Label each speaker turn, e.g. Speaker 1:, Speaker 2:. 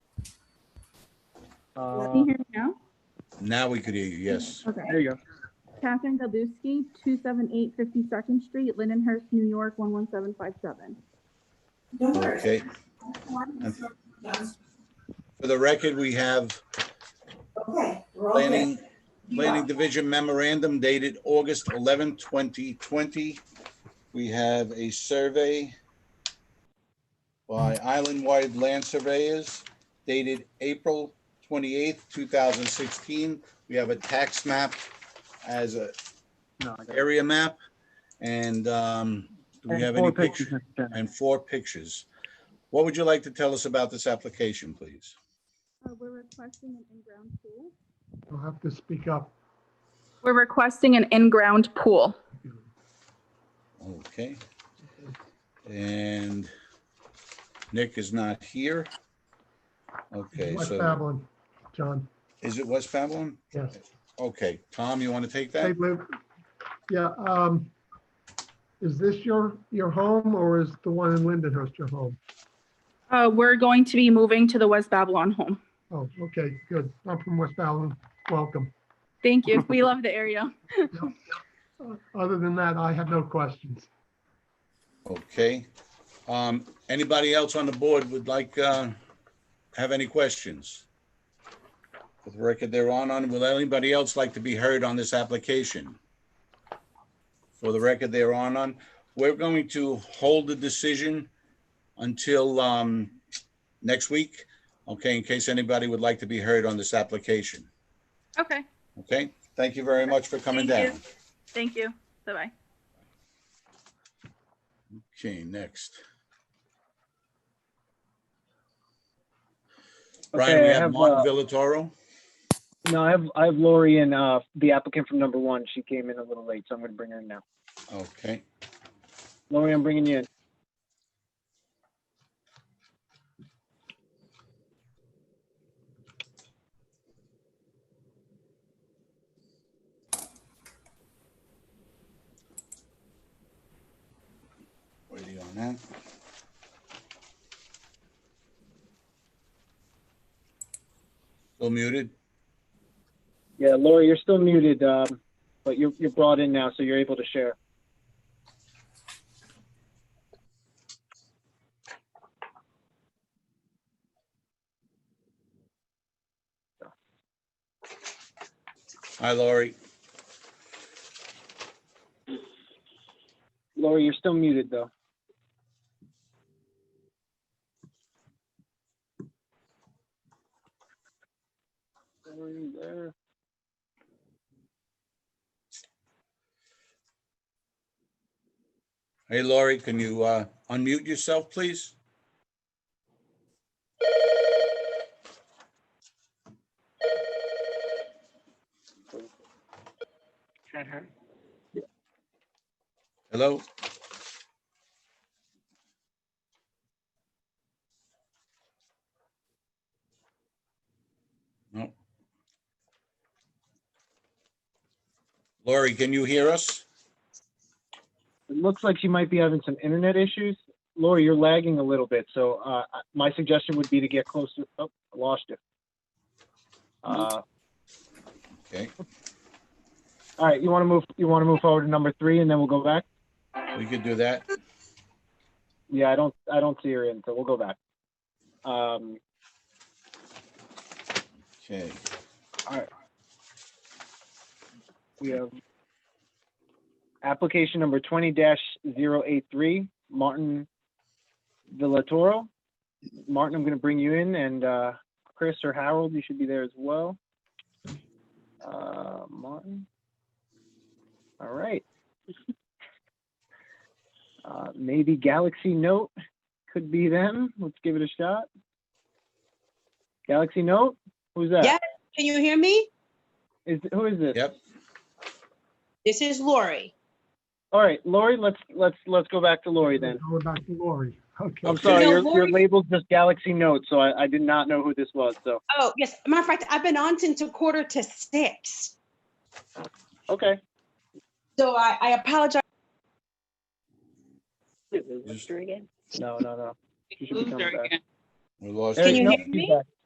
Speaker 1: Can you hear me now?
Speaker 2: Now we could hear you, yes.
Speaker 1: Okay.
Speaker 3: Uh, There you go.
Speaker 1: Catherine Gabuski, 278 52nd Street, Lindenhurst, New York, 11757.
Speaker 2: Okay. And For the record, we have
Speaker 4: Okay, we're all
Speaker 2: planning,
Speaker 4: good.
Speaker 2: planning division memorandum dated August 11, 2020. We have a survey by Islandwide Land Surveyors dated April 28, 2016. We have a tax map as a
Speaker 3: No, I got it.
Speaker 2: area map. And um, do we
Speaker 3: And
Speaker 2: have
Speaker 3: four
Speaker 2: any
Speaker 3: pictures,
Speaker 2: pictures?
Speaker 3: Mr. Chairman.
Speaker 2: and four pictures. What would you like to tell us about this application, please?
Speaker 1: Uh, We're requesting an in-ground pool.
Speaker 5: You'll have to speak up.
Speaker 1: We're requesting an in-ground pool.
Speaker 2: Okay. And Nick is not here. Okay,
Speaker 5: West
Speaker 2: so
Speaker 5: Babylon, John,
Speaker 2: is it West Babylon?
Speaker 5: yes.
Speaker 2: Okay, Tom, you want to take
Speaker 5: Hey,
Speaker 2: that?
Speaker 5: Lou. Yeah, um, is this your, your home or is the one in Lindenhurst your home?
Speaker 1: Uh, We're going to be moving to the West Babylon home.
Speaker 5: Oh, okay, good. I'm from West Babylon. Welcome.
Speaker 1: Thank you. We love the area.
Speaker 5: Uh, Other than that, I have no questions.
Speaker 2: Okay. Um, Anybody else on the board would like, uh, have any questions? For the record, they're on, on, will anybody else like to be heard on this application? For the record, they're on, on. We're going to hold the decision until um, next week, okay, in case anybody would like to be heard on this application,
Speaker 1: Okay,
Speaker 2: okay? Thank you very much for coming
Speaker 1: Thank
Speaker 2: down.
Speaker 1: thank you. Bye-bye.
Speaker 2: Okay, next. Brian,
Speaker 3: Okay,
Speaker 2: we
Speaker 3: I
Speaker 2: have
Speaker 3: have,
Speaker 2: Martin
Speaker 3: uh,
Speaker 2: Villatoro.
Speaker 3: no, I have, I have Lori and, uh, the applicant from number one. She came in a little late, so I'm gonna bring her in now.
Speaker 2: Okay,
Speaker 3: Lori, I'm bringing you in.
Speaker 2: waiting on that. Still muted?
Speaker 3: Yeah, Lori, you're still muted, um, but you're, you're brought in now, so you're able to share.
Speaker 2: Hi, Laurie.
Speaker 3: Lori, you're still muted, though. Lori, there.
Speaker 2: Hey, Laurie, can you uh, unmute yourself, please? Hello? No. Laurie, can you hear us?
Speaker 3: It looks like she might be having some internet issues. Lori, you're lagging a little bit, so uh, my suggestion would be to get closer. Oh, I lost you. Uh,
Speaker 2: Okay,
Speaker 3: all right, you want to move? You want to move forward to number three, and then we'll go back.
Speaker 2: we could do that.
Speaker 3: Yeah, I don't, I don't see her in, so we'll go back. Um,
Speaker 2: Okay.
Speaker 3: We have application number twenty 83 Martin Villatoro. Martin, I'm gonna bring you in and, uh, Chris or Harold, you should be there as well. Uh, Martin. All right. Uh, maybe Galaxy Note could be them. Let's give it a shot. Galaxy Note, who's
Speaker 6: Yeah.
Speaker 3: that?
Speaker 6: Can you hear me?
Speaker 3: Is, who is this?
Speaker 2: Yep.
Speaker 6: This is Lori.
Speaker 3: All right, Lori, let's, let's, let's go back to Lori then.
Speaker 5: Going back to Lori. Okay.
Speaker 3: I'm sorry,
Speaker 6: No,
Speaker 3: your, your
Speaker 6: Lori-
Speaker 3: label's just Galaxy Note, so I, I did not know who this was, so,
Speaker 6: Oh, yes. Matter of fact, I've been on since a quarter to six.
Speaker 3: okay.
Speaker 6: So I, I apologize.
Speaker 2: Just-
Speaker 3: No, no, no. She should be coming back.
Speaker 2: We lost.
Speaker 3: There
Speaker 6: Can
Speaker 3: you
Speaker 6: you
Speaker 3: go.
Speaker 6: hear me?
Speaker 3: She's back.